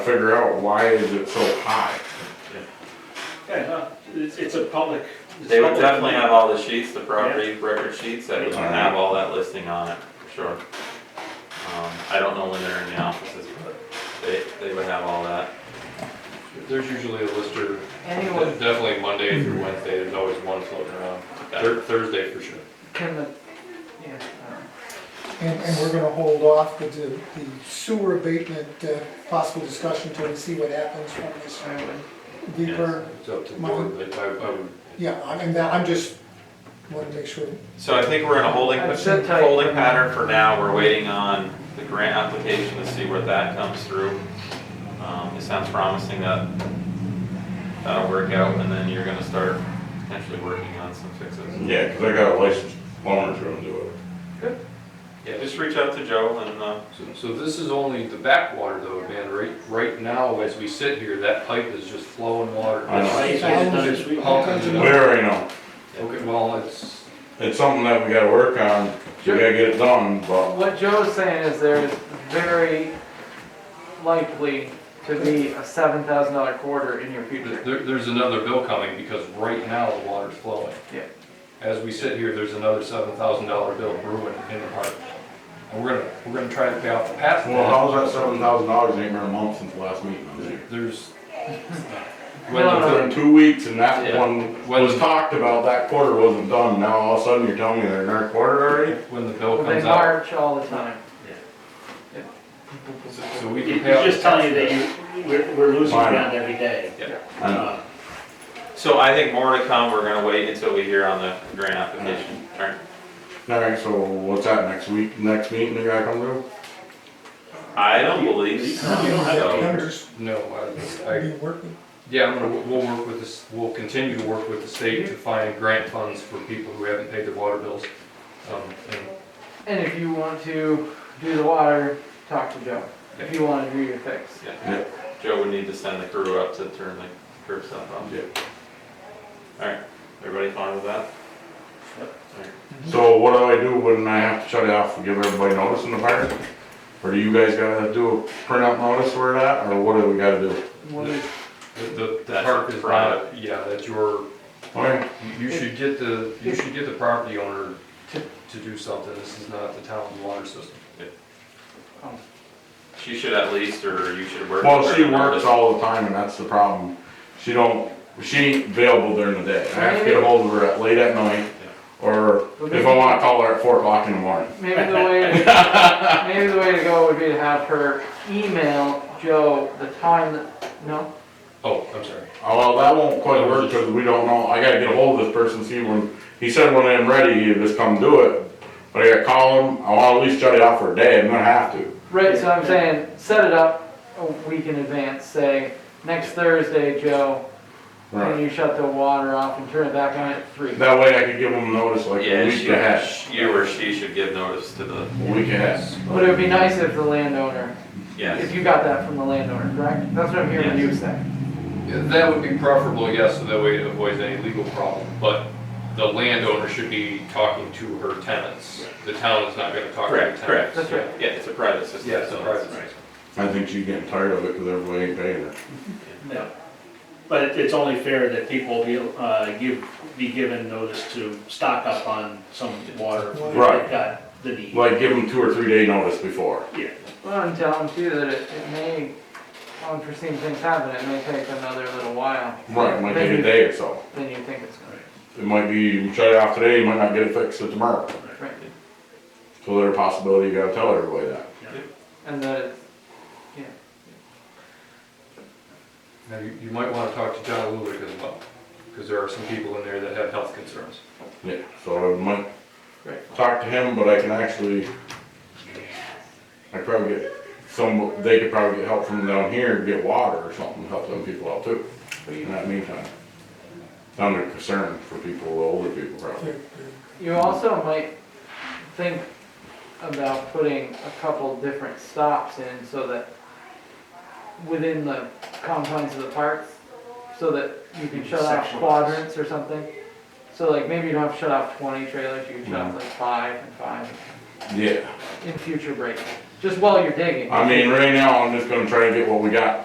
figure out why is it so high. Yeah, no, it's, it's a public. it's They would public definitely have land. all the sheets, the property record sheets, that would have all that listing on it, for sure. Um, I don't know when they're in the offices, but they, they would have all that. There's usually a lister, Anyone, definitely Monday through Wednesday, there's always one floating around. Thur- Thursday for sure. can the, yeah, um, And, and we're gonna hold off with the the sewer abatement, uh, possible discussion till we see what happens from this uh, I would, deeper. It's up to the board, but I, I would, Yeah, I mean, that, I'm just, wanna make sure. So I think we're in a holding, I've said type. holding pattern for now, we're waiting on the grant application to see where that comes through. Um, it sounds promising that that'll work out, and then you're gonna start potentially working on some fixes. Yeah, because I got a licensed plumber to do it. Yeah, just reach out to Joe and, uh, so- so this is only the backwater though, man, right, right now, as we sit here, that pipe is just flowing water. I know. Right, so it's another sweet- All kinds of- We already know, Okay, well, it's, it's something that we gotta work on, we gotta get it done, but what Joe's saying is there's very likely to be a seven thousand dollar quarter in your future. there, there's another bill coming because right now the water's flowing. Yeah. As we sit here, there's another seven thousand dollar bill brewing in the park. And we're gonna, we're gonna try to pay off the past. well, how's that seven thousand dollars ain't been a month since last meeting I was here? There's. No, Well, no, It's been two weeks and that Uh, Yeah. one When- was talked about, that quarter wasn't done, now all of a sudden you're telling me they're not quarter already? When the bill They comes out. march all the time. So so we can It- pay off. It's just telling you that you, we're, we're losing Mine. ground every day. I know. Uh, so I think more to come, we're gonna wait until we hear on the grant application, alright? Alright, so what's that, next week, next meeting they gotta come to? I don't believe You don't have so. to. I'm just No, I, I, be working. yeah, I'm gonna, we'll work with this, we'll continue to work with the state to find grant funds for people who haven't paid their water bills. Um, and And if you want to do the water, talk to Joe. If you wanna do your fix. Yeah. Joe would need to send the crew up to turn the curb stop on. Yeah. Alright, everybody fine with that? So what do I do when I have to shut it off and give everybody notice in the park? Or do you guys gotta do a printout notice where it at, or what do we gotta do? What is- the- The, the That's park is private. not, yeah, that's your, Okay, you- you should get the, you should get the property owner to, to do something. This is not the town's water system. She should at least, or you should work. well, with she her. works all the time and that's the problem. She don't, she ain't available during the day. I have to get ahold of her at late at night, or if I wanna call her at four o'clock in the morning. Maybe the way, maybe the way to go would be to have her email Joe the time that, no? Oh, I'm sorry. Uh, Well, that won't quite work, cause we don't know, I gotta get ahold of this person, see when, he said when I'm ready, he'd just come do it. But I gotta call him, I wanna at least shut it off for a day, I'm gonna have to. Right, so I'm saying, set it up a week in advance, say, next Thursday, Joe, Right. when you shut the water off and turn it back on at three. That way I could give them notice like a Yeah, week ahead, she, you or she should give notice to the, a week ahead. But it would be nice if the landowner, yes. if you got that from the landowner, correct? That's what I'm hearing you say. Yeah, That would be preferable, yes, so that way it avoids any legal problem, but the landowner should be talking to her tenants. The town is not gonna talk to the Correct, tenants. correct. That's right. Yeah, it's a private system. Yeah, it's a so private right. I think she's getting tired of it because everybody ain't paying her. no. But it- it's only fair that people be, uh, give, be given notice to stock up on some water. if Right. they've Got the need. Like, give them two or three day notice before. Yeah, Well, and tell them too that it, it may, unforeseen things happen, it may take another little while. Right, it might take a day or so. Than you think it's gonna, It might be, you shut it off today, you might not get it fixed till tomorrow. right? So there's a possibility you gotta tell everybody that. And that, it's- Now, you, you might wanna talk to John Lulick as well, because there are some people in there that have health concerns. Yeah, so I might Right. talk to him, but I can actually, I probably get some, they could probably get help from down here, and get water or something, to help them people out too, in that meantime. I'm concerned for people, the older people probably. you also might think about putting a couple different stops in so that within the confines of the park, so that you can shut off Sections. quadrants or something. So like maybe you don't have to shut off twenty trailers, you can shut off like five and five Yeah. in future breaks, just while you're digging. I mean, right now, I'm just gonna try to get what we got